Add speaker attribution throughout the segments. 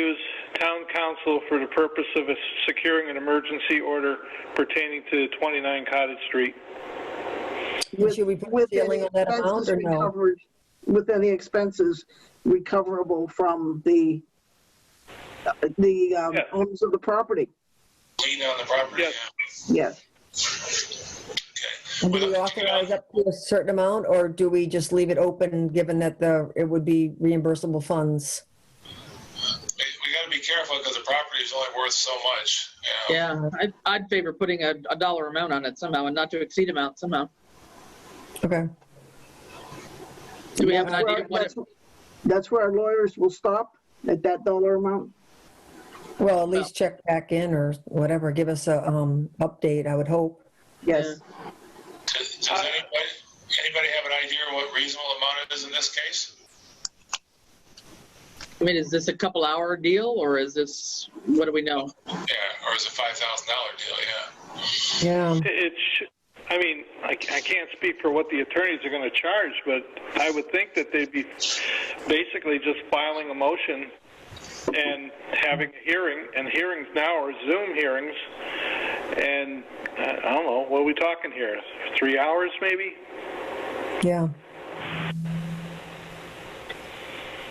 Speaker 1: use town council for the purpose of securing an emergency order pertaining to 29 Cottage Street.
Speaker 2: with-
Speaker 3: Should we put a
Speaker 2: with
Speaker 3: ceiling
Speaker 2: any
Speaker 3: on that amount
Speaker 2: expenses
Speaker 3: or no?
Speaker 2: recovered- With any expenses recoverable from the, the um,
Speaker 1: Yeah.
Speaker 2: owners of the property,
Speaker 4: lien on the property?
Speaker 1: Yes.
Speaker 2: yes.
Speaker 4: yeah.
Speaker 3: And do we
Speaker 4: Well,
Speaker 3: authorize up to a certain amount, or do we just leave it open, given that the, it would be reimbursable funds?
Speaker 4: We we gotta be careful because the property is only worth so much. you know.
Speaker 5: Yeah, I'd, I'd favor putting a, a dollar amount on it somehow and not to exceed amount somehow.
Speaker 3: Okay.
Speaker 5: Do we have an
Speaker 2: That's
Speaker 5: idea
Speaker 2: where-
Speaker 5: of what it,
Speaker 2: that's- That's where our lawyers will stop, at that dollar amount.
Speaker 3: Well, at least check back in or whatever, give us a, um, update, I would hope.
Speaker 2: Yes,
Speaker 4: Does does anybody, anybody have an idea of what reasonable amount it is in this case?
Speaker 5: I mean, is this a couple hour deal or is this, what do we know?
Speaker 4: Yeah, or is it five thousand dollar deal, yeah?
Speaker 3: Yeah,
Speaker 1: It's, I mean, I ca- I can't speak for what the attorneys are going to charge, but I would think that they'd be basically just filing a motion and having a hearing, and hearings now are Zoom hearings, and uh, I don't know, what are we talking here? Three hours, maybe?
Speaker 3: yeah.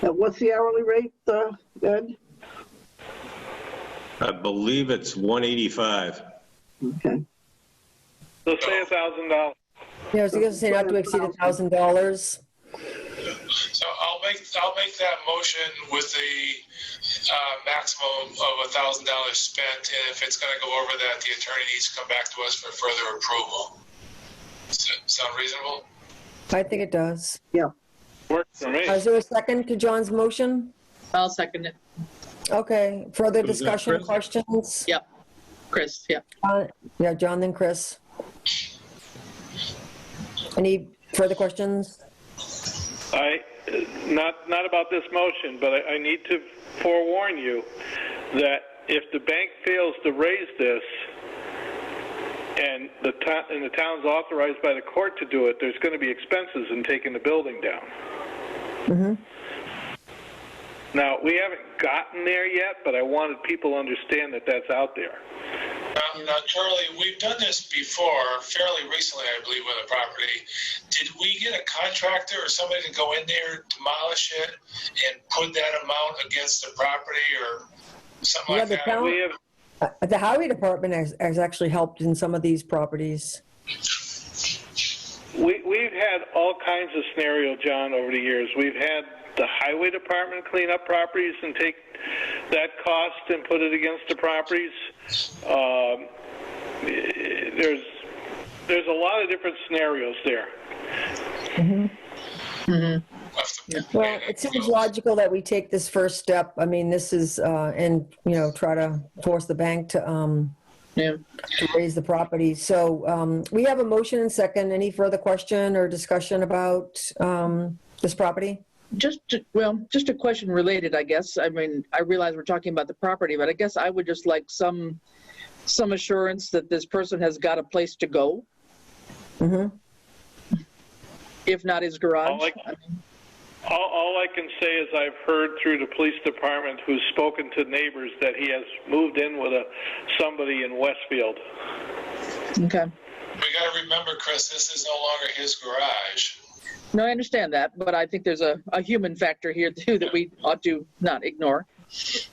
Speaker 2: Uh, what's the hourly rate, uh, Ed?
Speaker 6: I believe it's 185.
Speaker 2: Okay,
Speaker 1: So say a thousand dollars.
Speaker 3: Yeah, I was gonna say not to exceed a thousand dollars.
Speaker 4: So I'll make, I'll make that motion with the, uh, maximum of a thousand dollars spent. And if it's gonna go over that, the attorney needs to come back to us for further approval. Does that Sound reasonable?
Speaker 3: I think it does.
Speaker 2: yeah.
Speaker 1: Works for me.
Speaker 3: Uh, Is there a second to John's motion?
Speaker 5: I'll second it.
Speaker 3: Okay, further
Speaker 6: Was that
Speaker 3: discussion,
Speaker 6: Chris?
Speaker 3: questions?
Speaker 5: Yep. Chris, yeah.
Speaker 3: Uh, Yeah, John then Chris. Any further questions?
Speaker 1: I, not, not about this motion, but I, I need to forewarn you that if the bank fails to raise this, and the town, and the town's authorized by the court to do it, there's gonna be expenses in taking the building down. Now, we haven't gotten there yet, but I wanted people to understand that that's out there.
Speaker 4: Now, now, Charlie, we've done this before, fairly recently, I believe, with a property. Did we get a contractor or somebody to go in there, demolish it, and put that amount against the property or something
Speaker 3: Yeah,
Speaker 4: like
Speaker 3: the
Speaker 4: that?
Speaker 3: town-
Speaker 1: We have,
Speaker 3: Uh, The highway department has, has actually helped in some of these properties.
Speaker 1: We, we've had all kinds of scenario, John, over the years. We've had the highway department clean up properties and take that cost and put it against the properties. Um, eh, there's, there's a lot of different scenarios there.
Speaker 4: Left the-
Speaker 3: Well, it seems logical that we take this first step. I mean, this is, uh, and, you know, try to force the bank to, um,
Speaker 5: Yeah.
Speaker 3: to raise the property. So, um, we have a motion and second. Any further question or discussion about, um, this property?
Speaker 5: Just, to- well, just a question related, I guess. I mean, I realize we're talking about the property, but I guess I would just like some, some assurance that this person has got a place to go,
Speaker 3: hmm
Speaker 5: Mm-hmm. if not his garage.
Speaker 1: Oh, like- All, all I can say is I've heard through the police department who's spoken to neighbors that he has moved in with a, somebody in Westfield.
Speaker 5: Okay.
Speaker 4: We gotta remember, Chris, this is no longer his garage.
Speaker 5: No, I understand that, but I think there's a, a human factor here too that we ought to not ignore.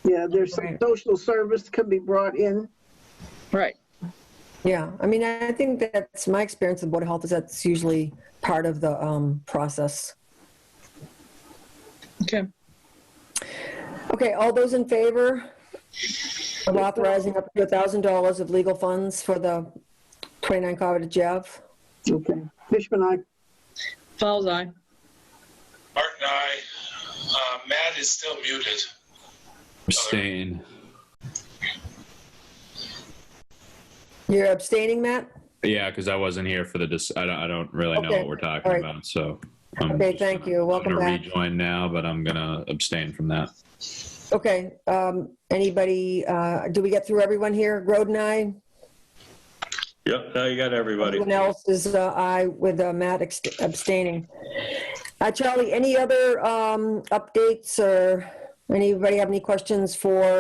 Speaker 2: Yeah, there's some
Speaker 3: Right.
Speaker 2: social service can be brought in.
Speaker 5: Right.
Speaker 3: Yeah, I mean, I think that's my experience with Board of Health is that's usually part of the, um, process.
Speaker 5: Okay.
Speaker 3: Okay, all those in favor of authorizing up to $1,000 of legal funds for the 29 Cottage Ave?
Speaker 2: Okay. Fishman, I,
Speaker 5: Fowles eye.
Speaker 4: Art and I, uh, Matt is still muted.
Speaker 7: Abstain.
Speaker 3: You're abstaining, Matt?
Speaker 7: Yeah, because I wasn't here for the, dis- I don't, I don't really know
Speaker 3: Okay,
Speaker 7: what we're talking
Speaker 3: all right.
Speaker 7: about, so. I'm
Speaker 3: Okay,
Speaker 7: just
Speaker 3: thank
Speaker 7: gonna-
Speaker 3: you. Welcome
Speaker 7: I'm gonna
Speaker 3: back.
Speaker 7: rejoin now, but I'm gonna abstain from that.
Speaker 3: Okay, um, anybody, uh, do we get through everyone here? Groden, aye?
Speaker 6: Yep, now you got everybody.
Speaker 3: Everyone else is uh, aye with uh, Matt ex- abstaining. Uh, Charlie, any other um, updates or Anybody have any questions for